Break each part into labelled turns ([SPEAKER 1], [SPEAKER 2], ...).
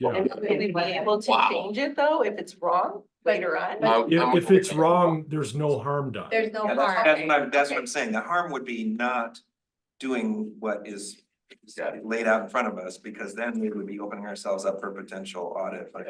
[SPEAKER 1] Yeah.
[SPEAKER 2] And will we be able to
[SPEAKER 3] Wow.
[SPEAKER 2] change it though, if it's wrong later on?
[SPEAKER 3] I- I'm-
[SPEAKER 1] If, if it's wrong, there's no harm done.
[SPEAKER 4] There's no
[SPEAKER 5] Yeah, that's,
[SPEAKER 4] harm.
[SPEAKER 5] that's what I'm, that's what I'm saying. The harm would be not doing what is
[SPEAKER 3] Yeah.
[SPEAKER 5] laid out in front of us, because then we would be opening ourselves up for potential audit. but-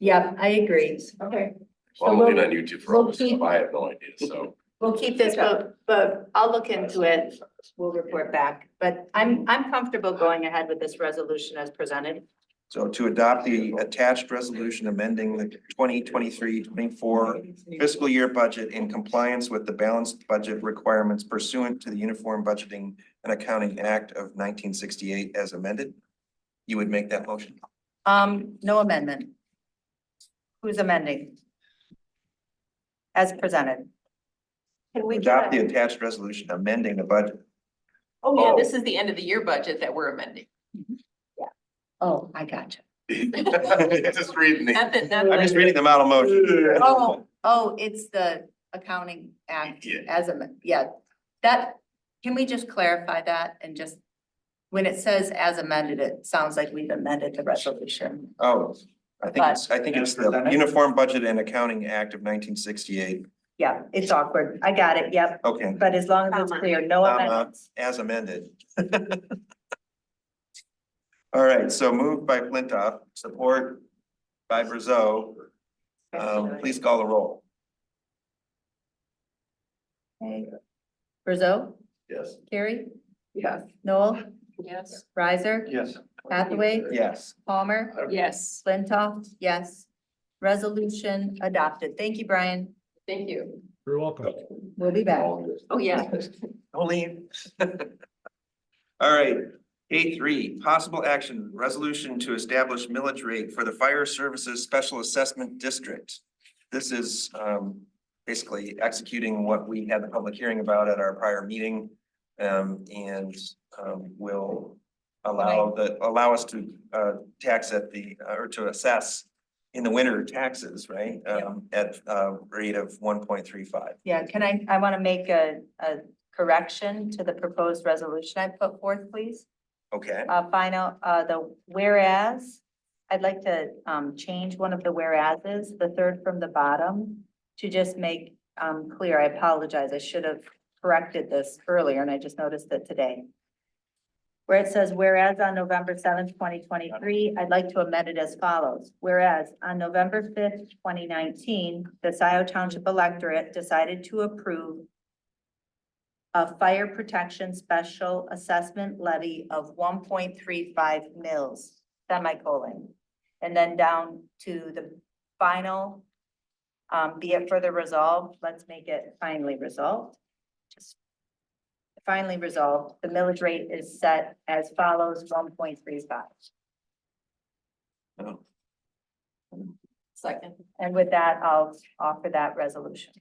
[SPEAKER 4] Yep, I agree.
[SPEAKER 2] Okay.
[SPEAKER 3] Well, I'm
[SPEAKER 6] So
[SPEAKER 3] looking on YouTube for all this
[SPEAKER 6] we'll keep-
[SPEAKER 3] stuff. I have no idea, so.
[SPEAKER 4] We'll keep this, but, but I'll look into it. We'll report back. But I'm, I'm comfortable going ahead with this resolution as presented.
[SPEAKER 5] So to adopt the attached resolution amending the 2023-24 fiscal year budget in compliance with the balanced budget requirements pursuant to the Uniform Budgeting and Accounting Act of nineteen sixty-eight as amended. You would make that motion?
[SPEAKER 4] Um, no amendment. Who's amending? As presented.
[SPEAKER 2] Can we
[SPEAKER 5] Adopt
[SPEAKER 2] get
[SPEAKER 5] the
[SPEAKER 2] a,
[SPEAKER 5] attached resolution amending the budget.
[SPEAKER 2] oh yeah, this is the end of the year budget that we're amending.
[SPEAKER 4] Oh, I got you.
[SPEAKER 3] Just reading
[SPEAKER 2] Not
[SPEAKER 3] the.
[SPEAKER 2] that- not
[SPEAKER 5] I'm just
[SPEAKER 2] that-
[SPEAKER 5] reading the model motion.
[SPEAKER 4] Oh, oh, it's the accounting act
[SPEAKER 3] Yeah.
[SPEAKER 4] as a, yeah, that, can we just clarify that and just? When it says as amended, it sounds like we've amended the resolution.
[SPEAKER 5] Oh, I think it's, I think it's the
[SPEAKER 6] But-
[SPEAKER 5] Uniform Budget and Accounting Act of nineteen sixty-eight.
[SPEAKER 4] Yeah, it's awkward. I got it, yep,
[SPEAKER 5] Okay,
[SPEAKER 4] but as long as it's clear, no
[SPEAKER 5] Comma.
[SPEAKER 4] amendments.
[SPEAKER 5] as amended. All right, so moved by Flintoff, support by Brazo. Um, please call the roll.
[SPEAKER 4] Okay. Brzo,
[SPEAKER 3] Yes.
[SPEAKER 4] Carrie,
[SPEAKER 2] Yes.
[SPEAKER 4] Noel,
[SPEAKER 2] Yes.
[SPEAKER 4] Riser,
[SPEAKER 3] Yes.
[SPEAKER 4] Hathaway,
[SPEAKER 5] Yes,
[SPEAKER 4] Palmer,
[SPEAKER 2] Yes,
[SPEAKER 4] Flintoff, yes. Resolution adopted. Thank you, Brian.
[SPEAKER 2] thank you.
[SPEAKER 1] You're welcome.
[SPEAKER 4] We'll be back.
[SPEAKER 2] Oh, yeah.
[SPEAKER 5] only. All right, A three, possible action, resolution to establish millage rate for the Fire Services Special Assessment District. This is um basically executing what we had the public hearing about at our prior meeting. Um, and um will allow the, allow us to uh tax at the, uh, or to assess in the winter taxes, right? Um, at a rate of one point three five.
[SPEAKER 4] Yeah, can I, I want to make a, a correction to the proposed resolution I put forth, please.
[SPEAKER 5] Okay,
[SPEAKER 4] Uh, final, uh, the whereas, I'd like to, um, change one of the whereas's, the third from the bottom, to just make, um, clear, I apologize, I should have corrected this earlier, and I just noticed it today. Where it says, whereas on November seventh, twenty twenty-three, I'd like to amend it as follows. Whereas on November fifth, twenty nineteen, the Scioto Township electorate decided to approve a fire protection special assessment levy of one point three five mils, semicolon. And then down to the final, um, be it further resolved, let's make it finally resolved. Just Finally resolved, the millage rate is set as follows, one point three five.
[SPEAKER 5] No.
[SPEAKER 2] Second.
[SPEAKER 4] And with that, I'll offer that resolution.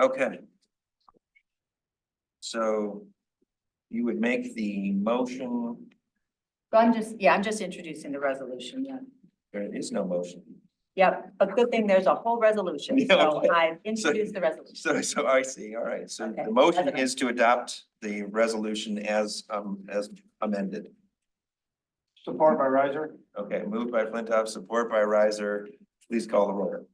[SPEAKER 5] Okay. So you would make the motion,
[SPEAKER 4] So I'm just, yeah, I'm just introducing the resolution, yeah.
[SPEAKER 5] there is no motion.
[SPEAKER 4] Yep, but good thing there's a whole resolution,
[SPEAKER 5] Yeah,
[SPEAKER 4] so
[SPEAKER 5] okay.
[SPEAKER 4] I introduced the resolution.
[SPEAKER 5] So, so I see, all right, so
[SPEAKER 4] Okay.
[SPEAKER 5] the motion is to adopt the resolution as, um, as amended.
[SPEAKER 6] Support by riser?
[SPEAKER 5] Okay, moved by Flintoff, support by Riser, please call the roll.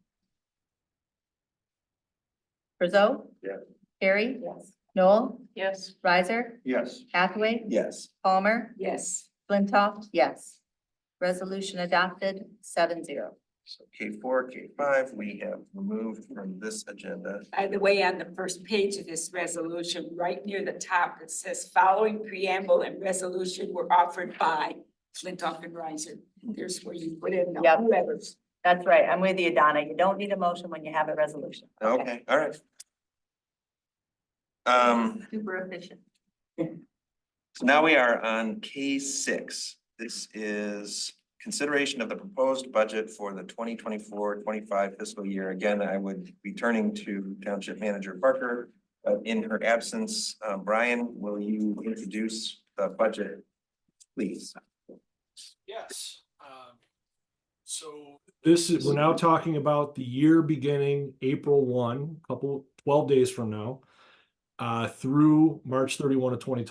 [SPEAKER 4] Brzo?
[SPEAKER 3] Yeah.
[SPEAKER 4] Carrie?
[SPEAKER 2] Yes.
[SPEAKER 4] Noel?
[SPEAKER 2] Yes.
[SPEAKER 4] Riser?
[SPEAKER 6] Yes.
[SPEAKER 4] Hathaway?
[SPEAKER 5] Yes,
[SPEAKER 4] Palmer?
[SPEAKER 2] Yes.
[SPEAKER 4] Flintoff? Yes. Resolution adopted, seven zero.
[SPEAKER 5] so K four, K five, we have removed from this agenda.
[SPEAKER 7] By the way, on the first page of this resolution, right near the top, it says following preamble and resolution were offered by Flintoff and Riser. There's where you put in
[SPEAKER 4] Yep.
[SPEAKER 7] the letters.
[SPEAKER 4] That's right, I'm with you, Donna. You don't need a motion when you have a resolution.
[SPEAKER 5] Okay, all right. Um,
[SPEAKER 2] Super efficient.
[SPEAKER 5] So now we are on K six. This is consideration of the proposed budget for the 2024-25 fiscal year. Again, I would be turning to Township Manager Parker. but in her absence, uh, Brian, will you introduce the budget, please?
[SPEAKER 1] Yes. Um, So this is, we're now talking about the year beginning April one, couple, twelve days from now, uh, through March thirty-one of twenty